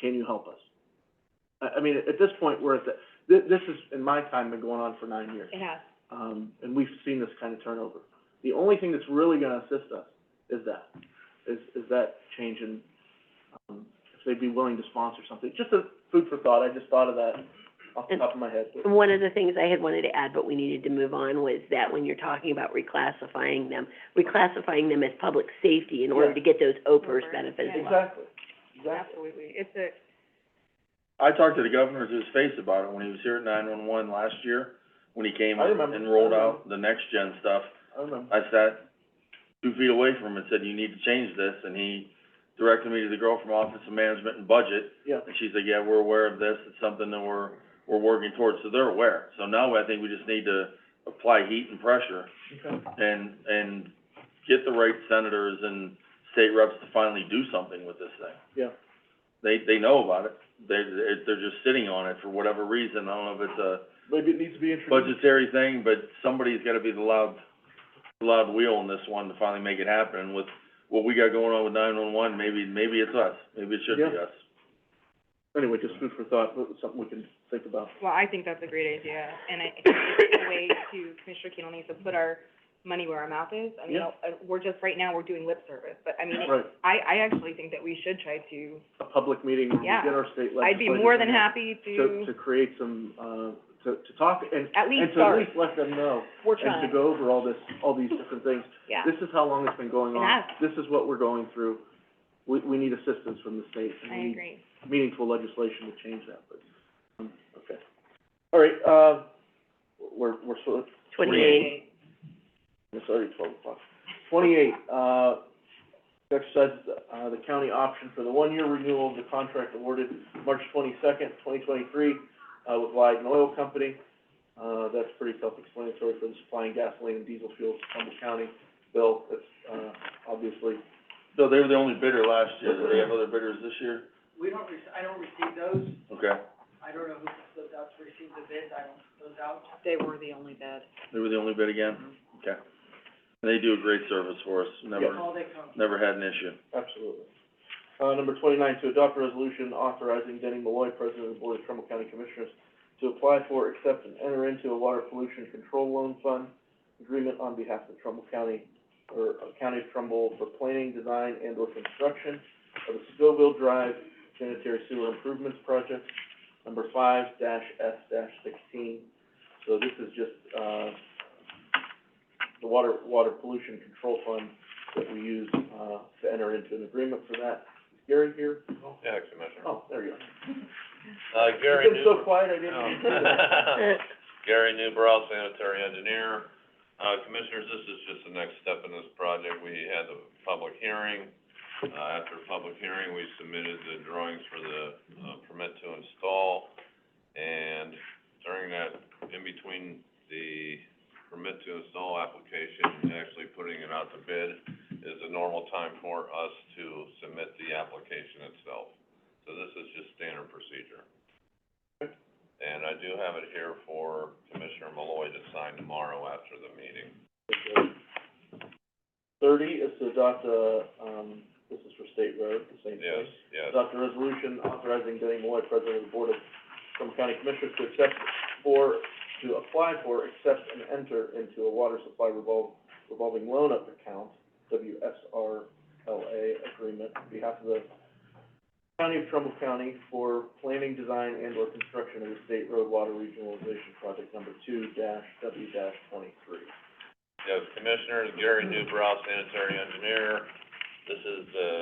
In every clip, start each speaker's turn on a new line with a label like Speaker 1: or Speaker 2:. Speaker 1: Can you help us? I, I mean, at this point, we're at the, thi- this has, in my time, been going on for nine years.
Speaker 2: It has.
Speaker 1: Um, and we've seen this kind of turnover. The only thing that's really gonna assist us is that, is, is that change in, um, if they'd be willing to sponsor something. Just a food for thought, I just thought of that off the top of my head.
Speaker 3: One of the things I had wanted to add, but we needed to move on, was that when you're talking about reclassifying them, reclassifying them as public safety in order to get those OPERS
Speaker 2: Over,
Speaker 3: benefits.
Speaker 2: yeah.
Speaker 1: Exactly, exactly.
Speaker 2: Absolutely. It's a,
Speaker 4: I talked to the governor to his face about it when he was here at nine-one-one last year, when he came
Speaker 1: I remember.
Speaker 4: and rolled out the next-gen stuff.
Speaker 1: I remember.
Speaker 4: I sat two feet away from him and said, you need to change this, and he directed me to the girl from Office of Management and Budget,
Speaker 1: Yeah,
Speaker 4: and she's like, yeah, we're aware of this, it's something that we're, we're working towards, so they're aware. So now I think we just need to apply heat and pressure
Speaker 1: okay.
Speaker 4: and, and get the right senators and state reps to finally do something with this thing.
Speaker 1: Yeah.
Speaker 4: They, they know about it, they, they're, they're just sitting on it for whatever reason, I don't know if it's a
Speaker 1: Maybe it needs to be introduced.
Speaker 4: budgetary thing, but somebody's gotta be the loud, the loud wheel on this one to finally make it happen, and with what we got going on with nine-one-one, maybe, maybe it's us, maybe it should be
Speaker 1: Yeah.
Speaker 4: us.
Speaker 1: Anyway, just food for thought, but it's something we can think about.
Speaker 2: well, I think that's a great idea, and I I think it's a way to, Commissioner Keenan needs to put our money where our mouth is. I mean,
Speaker 1: Yeah.
Speaker 2: uh, we're just, right now, we're doing lip service, but I mean,
Speaker 1: Right,
Speaker 2: I, I actually think that we should try to,
Speaker 1: a public meeting, where we
Speaker 2: Yeah.
Speaker 1: get our state legislators.
Speaker 2: I'd be more than
Speaker 1: in here
Speaker 2: happy
Speaker 1: To, to
Speaker 2: to,
Speaker 1: create some, uh, to, to talk and,
Speaker 2: at
Speaker 1: and to at
Speaker 2: least start.
Speaker 1: least let them know,
Speaker 2: We're
Speaker 1: and to
Speaker 2: trying,
Speaker 1: go over all this, all these different things.
Speaker 2: yeah.
Speaker 1: This is how long it's been going
Speaker 2: It
Speaker 1: on.
Speaker 2: has.
Speaker 1: This is what we're going through. We, we need assistance from the state. and
Speaker 2: I
Speaker 1: we need
Speaker 2: agree.
Speaker 1: Meaningful legislation to change that, but, um, okay. All right, uh, we're, we're sort of
Speaker 3: Twenty-eight,
Speaker 1: It's already twelve o'clock. Twenty-eight, uh, exercise, uh, the county option for the one-year renewal of the contract awarded March twenty-second, twenty twenty-three, uh, with Leiden Oil Company. Uh, that's pretty self-explanatory for the supplying gasoline and diesel fuel to Trumbull County. Bill, that's, uh, obviously,
Speaker 4: So they were the only bidder last year, do they have other bidders this year? We don't rec- I don't receive those. Okay.
Speaker 2: They were the only bid.
Speaker 4: They were the only bid again? Okay. And they do a great service for us, never, never had an issue.
Speaker 1: absolutely. Uh, number twenty-nine, to adopt a resolution authorizing Denny Malloy, President of the Board of Trumbull County Commissioners, to apply for, accept, and enter into a water pollution control loan fund agreement on behalf of Trumbull County, or uh, County of Trumbull for planning, design, and or construction of the Scoville Drive sanitary sewer improvements project, number five dash S dash sixteen. So this is just, uh, the water, water pollution control fund that we use, uh, to enter into an agreement for that. Is Gary here?
Speaker 5: Yeah, Commissioner.
Speaker 1: Oh, there you are.
Speaker 5: Uh, Gary
Speaker 1: You've been so
Speaker 5: Newbrow,
Speaker 1: quiet, I didn't.
Speaker 5: Oh. Gary Newbrow, sanitary engineer. Uh, Commissioners, this is just the next step in this project. We had the public hearing. Uh, after public hearing, we submitted the drawings for the, uh, permit to install. And during that, in between the permit to install application and actually putting it out to bid is a normal time for us to submit the application itself. So this is just standard procedure. And I do have it here for Commissioner Malloy to sign tomorrow after the meeting. Oh.
Speaker 1: Thirty is to adopt a, um, this is for state road, the same
Speaker 5: Yes,
Speaker 1: thing.
Speaker 5: yes.
Speaker 1: Adopt a resolution authorizing Denny Malloy, President of the Board of Trumbull County Commissioners, to accept or, to apply for, accept, and enter into a water supply revol- revolving loan account, WSRLA agreement, on behalf of the County of Trumbull County for planning, design, and/or construction of the state road water regionalization project number two dash W dash twenty-three.
Speaker 5: Yes, Commissioners, Gary Newbrow, sanitary engineer. This is the,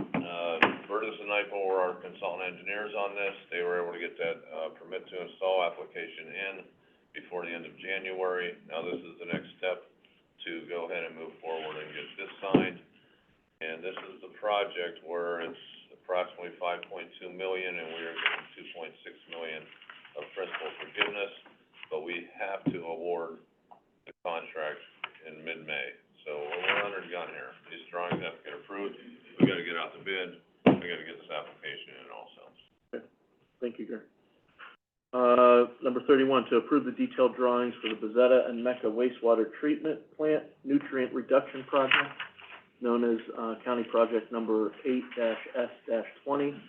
Speaker 5: uh, Burgess and Nyepel were our consultant engineers on this. They were able to get that, uh, permit to install application in before the end of January. Now, this is the next step to go ahead and move forward and get this signed. And this is the project where it's approximately five point two million, and we are getting two point six million of principal forgiveness, but we have to award the contract in mid-May. So we're under the gun here. These drawings have to get approved, we gotta get out the bid, we gotta get this application in also.
Speaker 1: Thank you, Gary. Uh, number thirty-one, to approve the detailed drawings for the Bezetta and Mecca wastewater treatment plant nutrient reduction project, known as, uh, county project number eight dash S dash twenty,